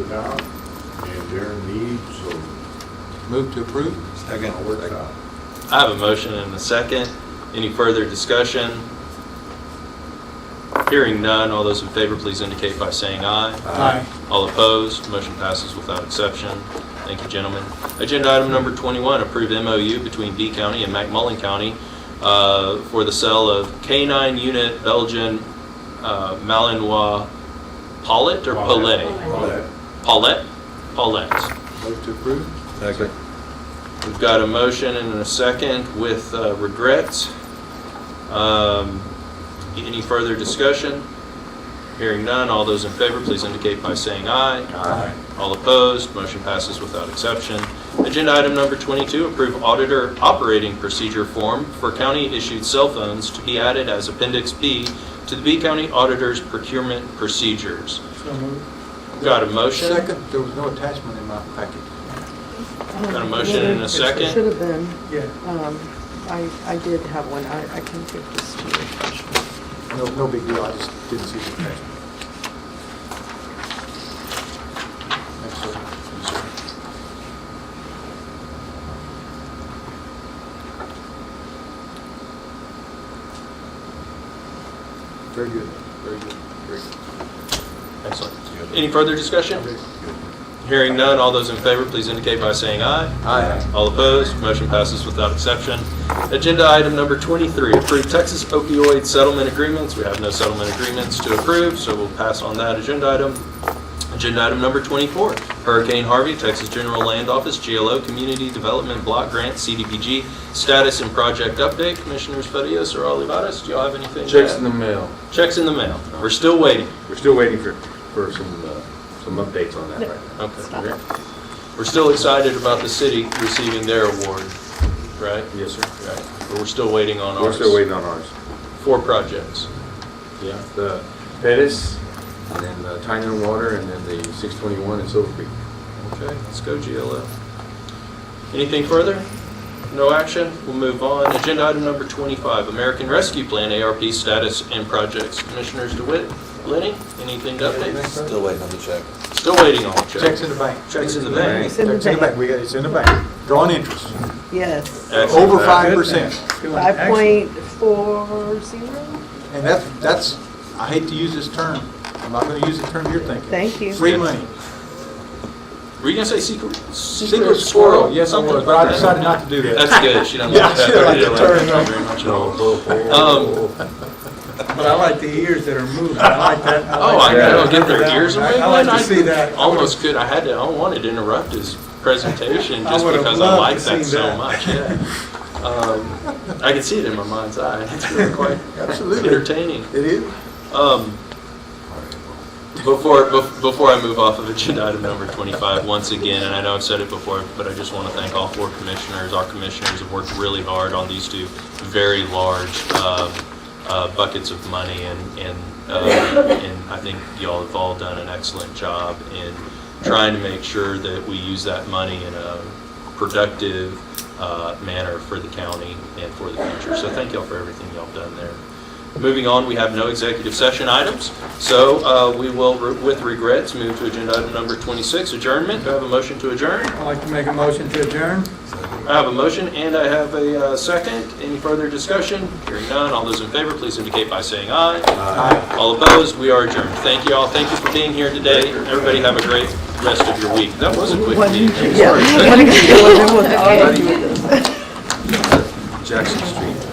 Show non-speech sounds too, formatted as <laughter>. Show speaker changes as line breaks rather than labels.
it out and their needs, so
Move to approve?
it all works out.
I have a motion and a second. Any further discussion? Hearing none, all those in favor, please indicate by saying aye.
Aye.
All opposed, motion passes without exception. Thank you, gentlemen. Agenda item number 21, approve MOU between B County and McMullen County uh, for the sale of K-9 unit Belgian uh, Malinois Paulette or Paulet?
All that.
Paulette? Paulette.
Move to approve?
Second.
We've got a motion and a second with uh, regrets. Um, Any further discussion? Hearing none, all those in favor, please indicate by saying aye.
Aye.
All opposed, motion passes without exception. Agenda item number 22, approve auditor operating procedure form for county-issued cell phones to be added as Appendix B to the B County Auditor's procurement procedures. We've Got a motion?
Second, there was no attachment in my packet.
Got a motion and a second?
Um, It should have been.
Yeah.
Um, I, I did have one. I, I can give this to you.
No, no big deal, I just didn't see the attachment. Thanks, sir. Very good, very good, very good.
Excellent. Any further discussion? Hearing none, all those in favor, please indicate by saying aye.
Aye.
All opposed, motion passes without exception. Agenda item number 23, approve Texas opioid settlement agreements. We have no settlement agreements to approve, so we'll pass on that agenda item. Agenda item number 24, Hurricane Harvey, Texas General Land Office, GLO Community Development Block Grant, CDBG, status and project update. Commissioners Fedios or Olivares, do y'all have anything? to
Checks
add?
in the mail.
Checks in the mail. We're still waiting.
We're still waiting for, for some, uh, some updates on that right now.
Okay.
Stop.
Okay.
We're still excited about the city receiving their award, right?
Yes, sir.
Right. But we're still waiting on
We're
ours.
still waiting on ours.
Four projects.
Yeah, the Pettis, and then the Tynan Water, and then the 621 and Silver Creek.
Okay, let's go GLO. Anything further? No action? We'll move on. Agenda item number 25, American Rescue Plan, ARP status and projects. Commissioners DeWitt, Lenny, anything to update?
Still waiting.
Still waiting on checks.
Checks in the bank.
Checks in the bank.
It's in the
Checks in the
bank.
bank, we got, it's in the bank, drawn interest,
Yes.
Excellent.
over 5%.
Five point four zero?
And that's, that's, I hate to use this term, I'm not gonna use the term you're thinking.
Thank you.
Free money.
Were you going to say secret?
Secret squirrel, yes, I was, but I decided not to do that.
That's good.
<laughs>
She doesn't like
Yeah,
that.
she doesn't like the term,
Thank
no.
you very much at all. Um,
But I like the ears that are moving. I like that.
Oh, I
like that.
gotta get their ears away.
I like
man.
to see that.
Almost could, I had to, I wanted to interrupt his
<laughs>
presentation
I
just
would've
because I
loved
like
to see
that so
that.
much, yeah. Um, I can see it in my mind's eye. It's <laughs> really
<laughs>
quite
Absolutely.
entertaining.
It is?
Um, Before, bef- before I move off of agenda item number 25, once again, and I know I've said it before, but I just want to thank all four commissioners. Our commissioners have worked really hard on these two very large um, uh, buckets of money, and, and uh, and I think y'all have all done an excellent job in trying to make sure that we use that money in a productive uh, manner for the county and for the future. So thank y'all for everything y'all have done there. Moving on, we have no executive session items, so uh, we will, with regrets, move to agenda item number 26, adjournment. Do I have a motion to adjourn?
I'd like to make a motion to adjourn.
I have a motion and I have a uh, second. Any further discussion? Hearing none, all those in favor, please indicate by saying aye. Aye. All opposed, we are adjourned. Thank you all, thank you for being here today. Everybody have a great rest of your week. That was a quick meeting.
<laughs> Yeah.
Jackson Street.